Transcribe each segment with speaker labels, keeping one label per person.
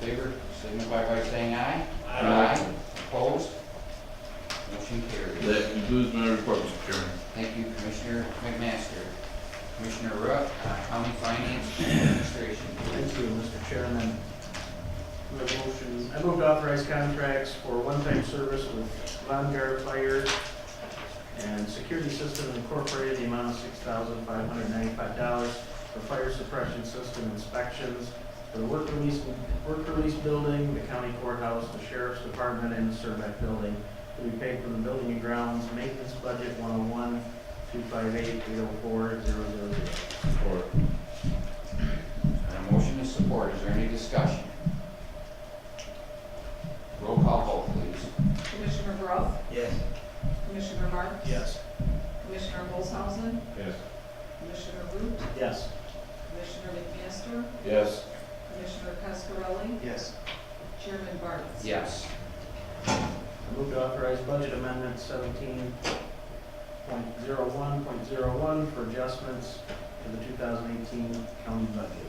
Speaker 1: favor, signify by saying aye.
Speaker 2: Aye.
Speaker 1: Opposed? Motion carries.
Speaker 3: That concludes my report, Mr. Chairman.
Speaker 1: Thank you, Commissioner McMaster. Commissioner Rupp, uh, County Finance and Administration.
Speaker 4: Thank you, Mr. Chairman. I have a motion, I move to authorize contracts for one-time service with Vanguard Fire and Security System Incorporated, the amount of six thousand five hundred ninety-five dollars for fire suppression system inspections for the work release, work release building, the county courthouse, the sheriff's department, and the Surveck building. To be paid from the building and grounds maintenance budget one oh one, two five eight, eight oh four, zero zero zero.
Speaker 3: Support.
Speaker 1: And a Uh, motion is support, is there any discussion? Roll call vote, please.
Speaker 5: Commissioner Roth,
Speaker 2: Yes.
Speaker 5: Commissioner Marks?
Speaker 4: Yes.
Speaker 5: Commissioner Olshausen,
Speaker 3: Yes.
Speaker 5: Commissioner Root,
Speaker 4: Yes.
Speaker 5: Commissioner McMaster,
Speaker 3: Yes.
Speaker 5: Commissioner Cascarelli,
Speaker 4: Yes.
Speaker 5: Chairman Barnes.
Speaker 1: Yes.
Speaker 4: I move to authorize budget amendment seventeen point zero one point zero one for adjustments to the two thousand eighteen county budget.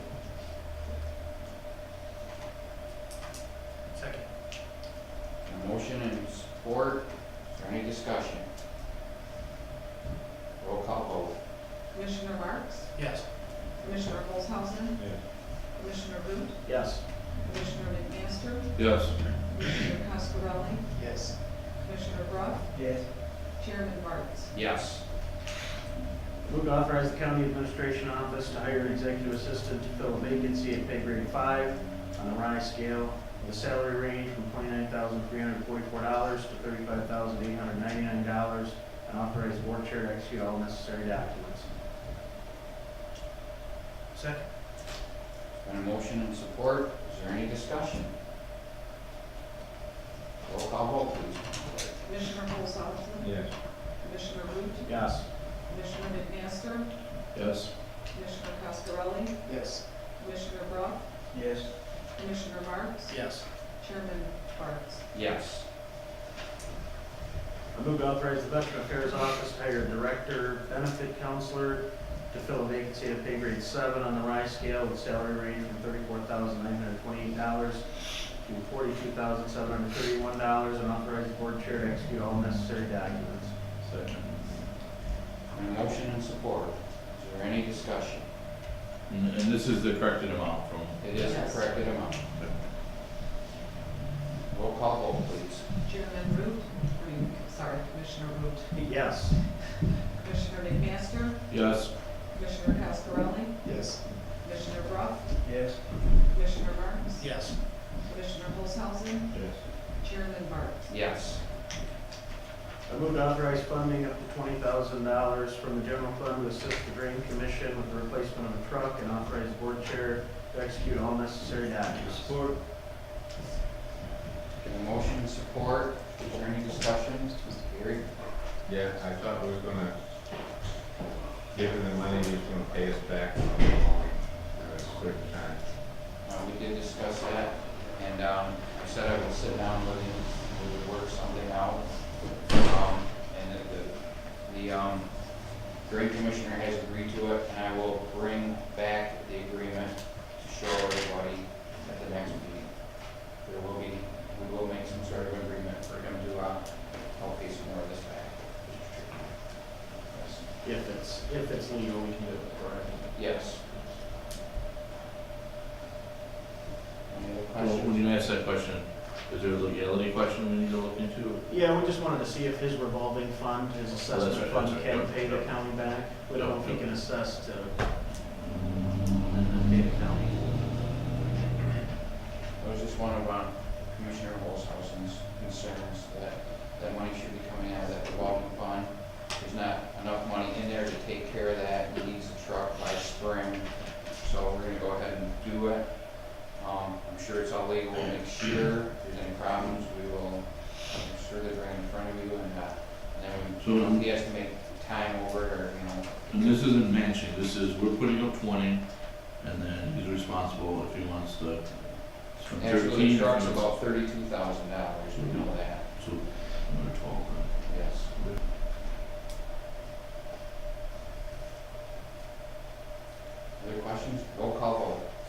Speaker 4: Second.
Speaker 1: A motion and support, is there any discussion? Roll call
Speaker 5: Commissioner Marks,
Speaker 4: Yes.
Speaker 5: Commissioner Olshausen,
Speaker 3: Yes.
Speaker 5: Commissioner Root,
Speaker 4: Yes.
Speaker 5: Commissioner McMaster,
Speaker 3: Yes.
Speaker 5: Commissioner Cascarelli,
Speaker 4: Yes.
Speaker 5: Commissioner Roth,
Speaker 4: Yes.
Speaker 5: Chairman Barnes.
Speaker 1: vote. Yes.
Speaker 4: Move to authorize the county administration office to hire an executive assistant to fill a vacancy at pay grade five on the RISE scale with a salary range from twenty-nine thousand three hundred forty-four dollars to thirty-five thousand eight hundred ninety-nine dollars and authorize the board chair to execute all necessary documents. Second.
Speaker 1: And a motion and support, is there any discussion? Roll call vote, please.
Speaker 5: Commissioner Olshausen,
Speaker 3: Yes.
Speaker 5: Commissioner Root,
Speaker 4: Yes.
Speaker 5: Commissioner McMaster,
Speaker 3: Yes.
Speaker 5: Commissioner Cascarelli,
Speaker 4: Yes.
Speaker 5: Commissioner Roth,
Speaker 4: Yes.
Speaker 5: Commissioner Marks,
Speaker 4: Yes.
Speaker 5: Chairman Barnes.
Speaker 1: Yes.
Speaker 4: I move to authorize the Veteran Affairs Office to hire a director, benefit counselor to fill a vacancy at pay grade seven on the rise scale with salary range from thirty-four thousand nine hundred twenty-eight dollars to forty-two thousand seven hundred thirty-one dollars and authorize the board chair to execute all necessary documents.
Speaker 3: Second.
Speaker 1: And a motion and support, is there any discussion?
Speaker 3: And and this is the corrected amount from,
Speaker 1: It is the
Speaker 5: Yes.
Speaker 1: corrected amount. Roll call vote, please.
Speaker 5: Chairman Root, I mean, sorry, Commissioner Root.
Speaker 4: Yes.
Speaker 5: Commissioner McMaster,
Speaker 3: yes.
Speaker 5: Commissioner Cascarelli,
Speaker 4: Yes.
Speaker 5: Commissioner Brock,
Speaker 4: Yes.
Speaker 5: Commissioner Marks,
Speaker 4: Yes.
Speaker 5: Commissioner Olshausen,
Speaker 3: Yes.
Speaker 5: Chairman Barnes.
Speaker 1: Yes.
Speaker 4: I move to authorize funding up to twenty thousand dollars from the general fund to assist the drain commission with the replacement of a truck and authorize the board chair to execute all necessary documents. Support.
Speaker 1: And a motion and support, is there any discussion? Mr. Gary?
Speaker 6: Yeah, I thought we were gonna give him the money, he was gonna pay us back for a certain time.
Speaker 1: Uh, we did discuss that, and, um, I said I would sit down with him, we would work something out. Um, and the, the, the, um, drain commissioner has agreed to it, and I will bring back the agreement to show everybody at the next meeting. There will be, we will make some sort of agreement for him to, uh, help pay some more of this back.
Speaker 4: If it's, if it's legal, we can do it, correct?
Speaker 1: Yes. Any other
Speaker 3: Well,
Speaker 1: questions?
Speaker 3: when you ask that question, is there a legality question we need to look into?
Speaker 4: Yeah, we just wanted to see if his revolving fund, his assessment
Speaker 3: right,
Speaker 4: fund
Speaker 3: that's right,
Speaker 4: can
Speaker 3: yeah,
Speaker 4: pay the
Speaker 3: yeah.
Speaker 4: county back. We don't know if he
Speaker 3: Yeah.
Speaker 4: can assess to, and then pay the county.
Speaker 1: That was just one of um, Commissioner Olshausen's concerns, that, that money should be coming out of that revolving fund. There's not enough money in there to take care of that, he needs a truck by spring, so we're gonna go ahead and do it. Um, I'm sure it's all legal next year, if there's any problems, we will, I'm sure they're right in front of you, and, uh, and then we, you know, if he has to make time over, it or, you know,
Speaker 3: And this isn't matching, this is, we're putting up twenty, and then he's responsible if he wants to. it's from
Speaker 1: actually,
Speaker 3: 13,
Speaker 1: the truck's
Speaker 3: it's-
Speaker 1: about thirty-two thousand dollars, we know that,
Speaker 3: So, number twelve, uh, right?
Speaker 1: yes. Other questions? Roll call vote.